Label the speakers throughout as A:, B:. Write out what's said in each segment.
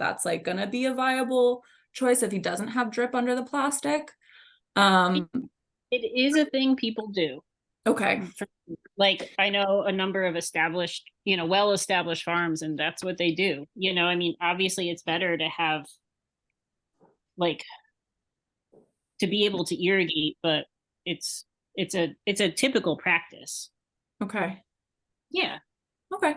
A: that's like gonna be a viable choice if he doesn't have drip under the plastic. Um,
B: It is a thing people do.
A: okay,
B: Like I know a number of established, you know, well-established farms and that's what they do. You know, I mean, obviously it's better to have like to be able to irrigate, but it's it's a it's a typical practice.
A: okay,
B: Yeah.
A: okay.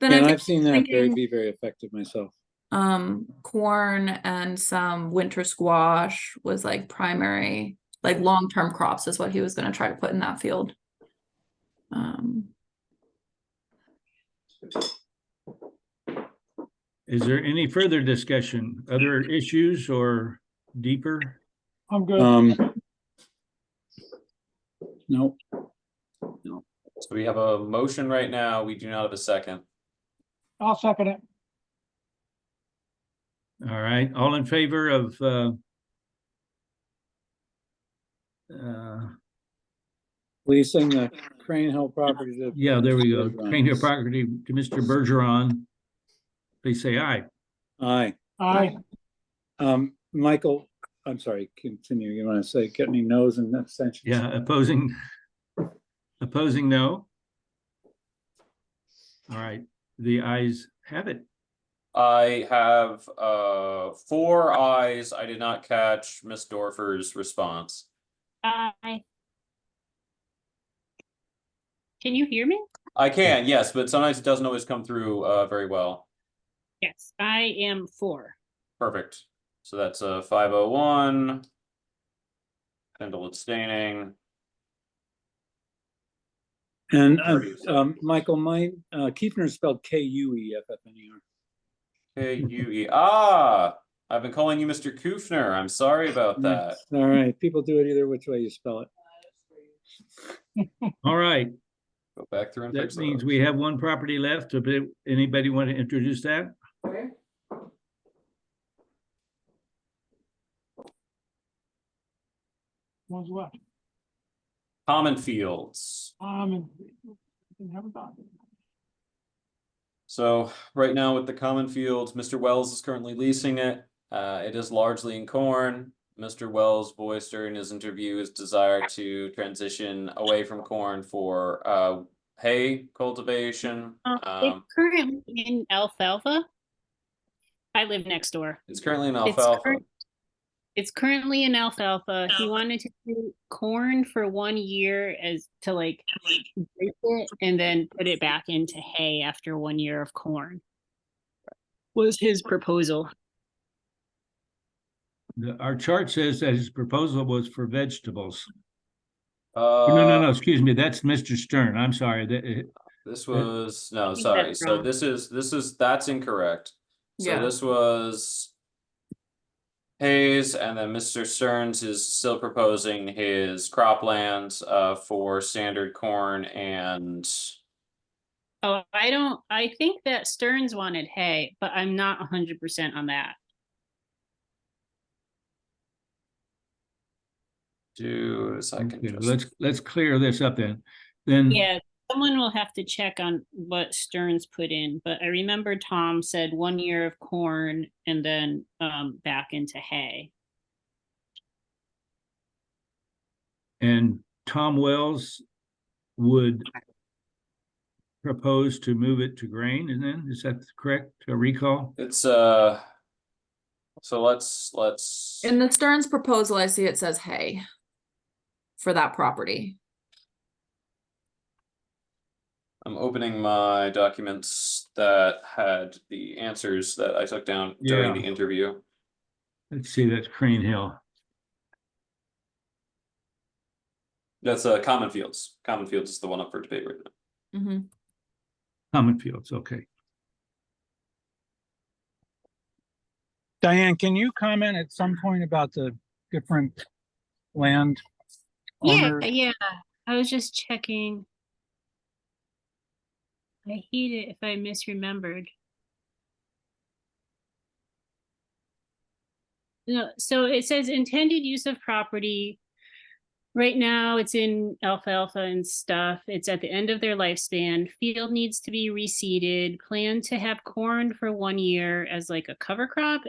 A: Then I
C: And
A: think,
C: I've seen that very,
A: thinking-
C: be very effective myself.
A: um, corn and some winter squash was like primary, like long-term crops is what he was gonna try to put in that field. Um,
D: Is there any further discussion, other issues or deeper?
E: I'm good.
C: Um. Nope,
F: So we have a motion right now. We do not have a second.
E: I'll second it.
D: All right, all in favor of uh uh,
C: leasing the Crane Hill property to.
D: yeah, there we go.
C: Bergeron.
D: Change your property to Mr. Bergeron. Please say aye.
C: Aye,
E: Aye.
C: um, Michael, I'm sorry, continue, you wanna say, get any no's and abstentions?
D: Yeah, opposing, opposing, no. All right, the ayes have it.
F: I have uh four eyes. I did not catch Miss Dorfer's response.
B: I Can you hear me?
F: I can, yes, but sometimes it doesn't always come through uh very well.
B: Yes, I am for.
F: Perfect. So that's a five oh one. Kendall abstaining.
C: And, uh, um, Michael, my, uh, Kiefner is spelled K U E F F N E R.
F: K U E. Ah, I've been calling you Mr. Kufner. I'm sorry about that.
C: All right, people do it either which way you spell it.
D: All right,
F: Go back through and
D: that
F: fix
D: means
F: those.
D: we have one property left. If it- Anybody want to introduce that?
E: One's left.
F: Common fields.
E: Um, and and have a dog.
F: So right now with the common fields, Mr. Wells is currently leasing it. Uh, it is largely in corn. Mr. Wells voiced during his interview his desire to transition away from corn for uh hay cultivation.
B: Uh,
F: Um,
B: It's currently in alfalfa. I live next door.
F: it's currently in
B: It's
F: alfalfa.
B: current- It's currently in alfalfa. He wanted to do corn for one year as to like break it and then put it back into hay after one year of corn. Was his proposal.
D: The- Our chart says that his proposal was for vegetables.
F: Uh,
D: No, no, no, excuse me, that's Mr. Stern. I'm sorry. that- eh,
F: This
D: Uh,
F: was, no,
B: think
F: sorry,
B: that's
F: so
B: wrong.
F: this is, this is, that's incorrect. So
A: Yeah.
F: this was. Hayes and then Mr. Stearns is still proposing his croplands uh for standard corn and.
B: Oh, I don't, I think that Stearns wanted hay, but I'm not hundred percent on that.
F: Do, so I can
D: okay,
F: just,
D: Let's, let's clear this up then. Then,
B: Yeah, someone will have to check on what Stearns put in, but I remember Tom said one year of corn and then um back into hay.
D: and Tom Wells would propose to move it to grain and then, is that correct, a recall?
F: it's uh. So let's, let's,
A: in the Stearns proposal, I see it says hay for that property.
F: I'm opening my documents that had the answers that I took down during
D: Yeah.
F: the interview.
D: Let's see, that's Crane Hill.
F: That's uh common fields, common fields is the one up for debate right now.
A: hmm
D: Common Fields, okay.
E: Diane, can you comment at some point about the different land?
B: Yeah,
E: owners?
B: yeah, I was just checking. I hate it if I misremembered. No, so it says intended use of property Right now, it's in alfalfa and stuff. It's at the end of their lifespan. Field needs to be reseeded. Plan to have corn for one year as like a cover crop